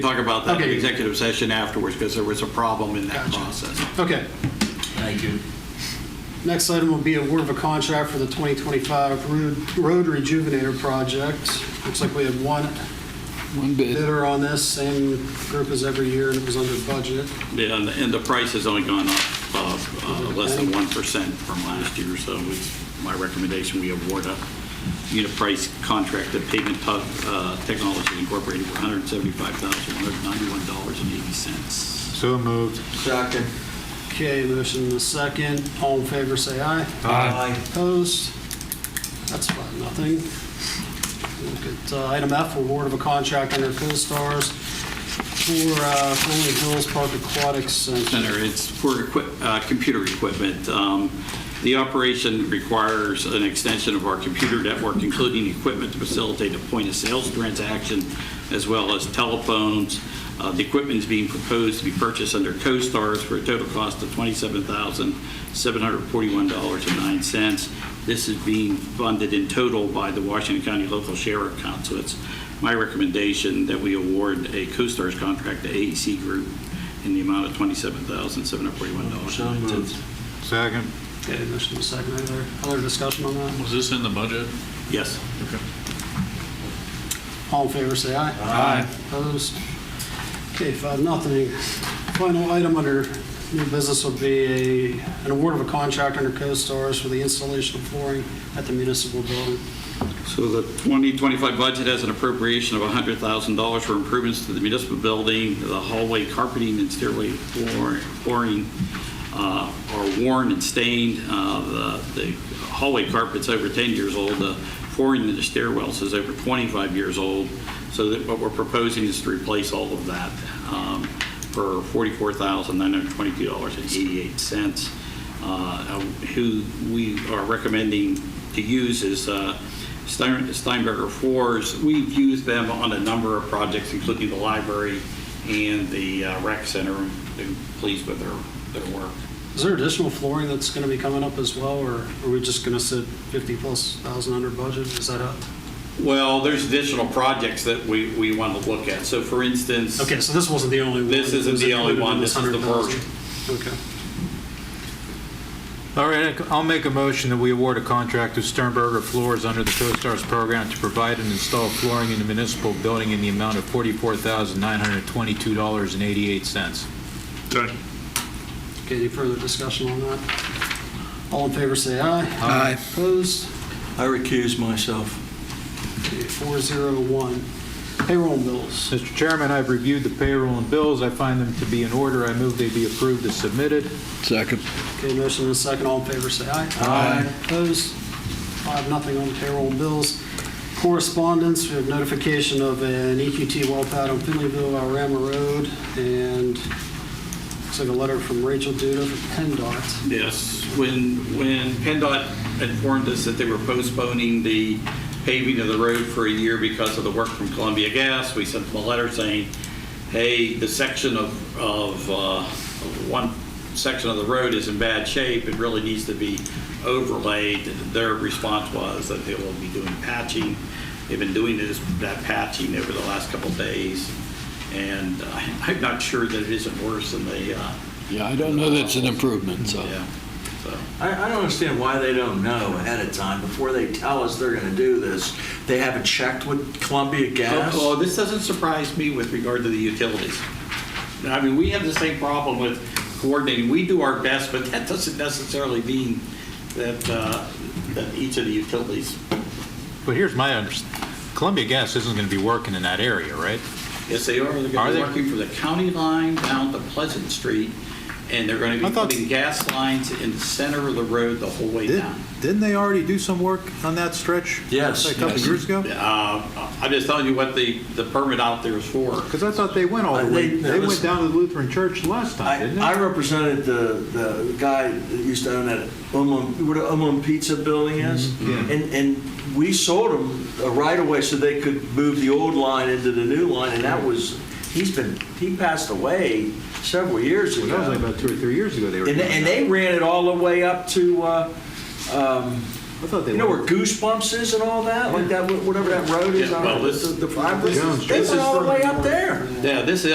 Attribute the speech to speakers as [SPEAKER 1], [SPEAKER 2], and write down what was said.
[SPEAKER 1] talk about that in
[SPEAKER 2] Okay.
[SPEAKER 1] executive session afterwards, because there was a problem in that
[SPEAKER 2] Gotcha.
[SPEAKER 1] process.
[SPEAKER 2] Okay.
[SPEAKER 3] Thank you.
[SPEAKER 2] Next item will be award of a contract for the 2025 road- Road Rejuvenator Project. Looks like we had one
[SPEAKER 4] One bid.
[SPEAKER 2] bidder on this, same group as every year, and it was under budget.
[SPEAKER 1] Yeah, And and the price has only gone up uh, uh, less than 1% from last year, so it's my recommendation we award a unit price contract to Pavement Tug- uh, Technologies Incorporated for $175,191.80.
[SPEAKER 5] So moved.
[SPEAKER 3] Second.
[SPEAKER 2] Okay, motion in a second. All in favor, say aye.
[SPEAKER 3] Aye.
[SPEAKER 2] Opposed? That's five, nothing. Look at uh, item F, award of a contract under CoStarz for uh, Rolling Hills Park Aquatics Center.
[SPEAKER 1] Center, it's for equi- uh, computer equipment. Um, The operation requires an extension of our computer network, including equipment to facilitate a point-of-sales transaction, as well as telephones. Uh, The equipment is being proposed to be purchased under CoStars for a total cost of $27,741.09. This is being funded in total by the Washington County Local Sheriff Council. It's my recommendation that we award a CoStars contract to AEC Group in the amount of $27,741.
[SPEAKER 3] So moved.
[SPEAKER 5] Second.
[SPEAKER 2] Okay, motion in a second. Any Other other discussion on that?
[SPEAKER 6] Was this in the budget?
[SPEAKER 1] Yes.
[SPEAKER 2] All in favor, say aye.
[SPEAKER 3] Aye.
[SPEAKER 2] Opposed? Okay, five, nothing. Final item under new business will be a, an award of a contract under CoStarz for the installation of flooring at the municipal building.
[SPEAKER 1] So the 2025 budget has an appropriation of $100,000 for improvements to the municipal building, the hallway carpeting and stairway floor- flooring uh, are worn and stained. Uh, The the hallway carpet's over 10 years old, the flooring in the stairwells is over 25 years old, so that what we're proposing is to replace all of that um, for $44,922.88. Uh, Who we are recommending to use is uh, Stein- Steinberger floors. We've used them on a number of projects, including the library and the uh, rec center. Been pleased with their, their work.
[SPEAKER 2] Is there additional flooring that's going to be coming up as well, or are we just going to sit 50 plus thousand under budget? Is that up?
[SPEAKER 1] Well, there's additional projects that we, we want to look at. So for instance,
[SPEAKER 2] Okay, so this wasn't the only one.
[SPEAKER 1] This isn't the only one.
[SPEAKER 2] It was
[SPEAKER 1] This is the
[SPEAKER 2] included in this 100,000. Okay.
[SPEAKER 5] All right, I'll make a motion that we award a contract to Sternberger Floors under the CoStarz program to provide and install flooring in the municipal building in the amount of $44,922.88.
[SPEAKER 6] Second.
[SPEAKER 2] Okay, any further discussion on that? All in favor, say aye.
[SPEAKER 4] Aye.
[SPEAKER 2] Opposed?
[SPEAKER 3] I recuse myself.
[SPEAKER 2] Okay, 401. Payroll and bills.
[SPEAKER 5] Mr. Chairman, I've reviewed the payroll and bills. I find them to be in order. I move they be approved as submitted.
[SPEAKER 4] Second.
[SPEAKER 2] Okay, motion and a second. All in favor, say aye.
[SPEAKER 5] Aye.
[SPEAKER 2] Opposed? Five, nothing on payroll and bills. Correspondence, we have notification of an EQT well pad on Finleyville, Alrama Road, and looks like a letter from Rachel Duda from PennDOT.
[SPEAKER 1] Yes, when, when PennDOT informed us that they were postponing the paving of the road for a year because of the work from Columbia Gas, we sent them a letter saying, hey, the section of, of, uh, of one section of the road is in bad shape, it really needs to be overlaid. Their response was that they will be doing patching. They've been doing this, that patching over the last couple of days, and I- I'm not sure that it isn't worse than the, uh,
[SPEAKER 4] Yeah, I don't know that's an improvement, so.
[SPEAKER 1] yeah, so.
[SPEAKER 3] I, I don't understand why they don't know ahead of time, before they tell us they're gonna do this. They haven't checked with Columbia Gas?
[SPEAKER 1] Oh, oh, this doesn't surprise me with regard to the utilities. I mean, we have the same problem with coordinating. We do our best, but that doesn't necessarily mean that, uh, that each of the utilities.
[SPEAKER 5] But here's my understanding. Columbia Gas isn't going to be working in that area, right?
[SPEAKER 1] Yes, they are. They're
[SPEAKER 5] Are
[SPEAKER 1] going to
[SPEAKER 5] they?
[SPEAKER 1] be working from the county line down to Pleasant Street, and they're going to
[SPEAKER 5] I
[SPEAKER 1] be
[SPEAKER 5] thought-
[SPEAKER 1] putting gas lines in the center of the road the whole way down.
[SPEAKER 5] Didn't they already do some work on that stretch?
[SPEAKER 3] Yes,
[SPEAKER 5] A couple
[SPEAKER 3] yes.
[SPEAKER 5] years ago?
[SPEAKER 1] Uh, I'm just telling you what the, the permit out there is for.
[SPEAKER 5] Because I thought they went all
[SPEAKER 3] Uh,
[SPEAKER 5] the
[SPEAKER 3] they-
[SPEAKER 5] way,
[SPEAKER 3] that
[SPEAKER 5] they
[SPEAKER 3] was-
[SPEAKER 5] went down to the Lutheran church last time,
[SPEAKER 3] I,
[SPEAKER 5] didn't
[SPEAKER 3] I
[SPEAKER 5] they?
[SPEAKER 3] represented the, the guy that used to own that Umum, what a Umum Pizza building is.
[SPEAKER 5] yeah.
[SPEAKER 3] And, and we sold him a right away so they could move the old line into the new line, and that was, he's been, he passed away several years
[SPEAKER 5] That was like
[SPEAKER 3] ago.
[SPEAKER 5] about two or three years ago they were.
[SPEAKER 3] And,
[SPEAKER 5] doing
[SPEAKER 3] and
[SPEAKER 5] that.
[SPEAKER 3] they ran it all the way up to, uh, um,
[SPEAKER 6] I thought they
[SPEAKER 3] You know where
[SPEAKER 6] were.
[SPEAKER 3] Goosebumps is and all that, like that, whatever that road is
[SPEAKER 1] Yeah,
[SPEAKER 3] on
[SPEAKER 1] well,
[SPEAKER 3] the,
[SPEAKER 1] this-
[SPEAKER 3] the, the,
[SPEAKER 6] Yeah.
[SPEAKER 3] they went all the way up there.
[SPEAKER 1] Yeah, this is,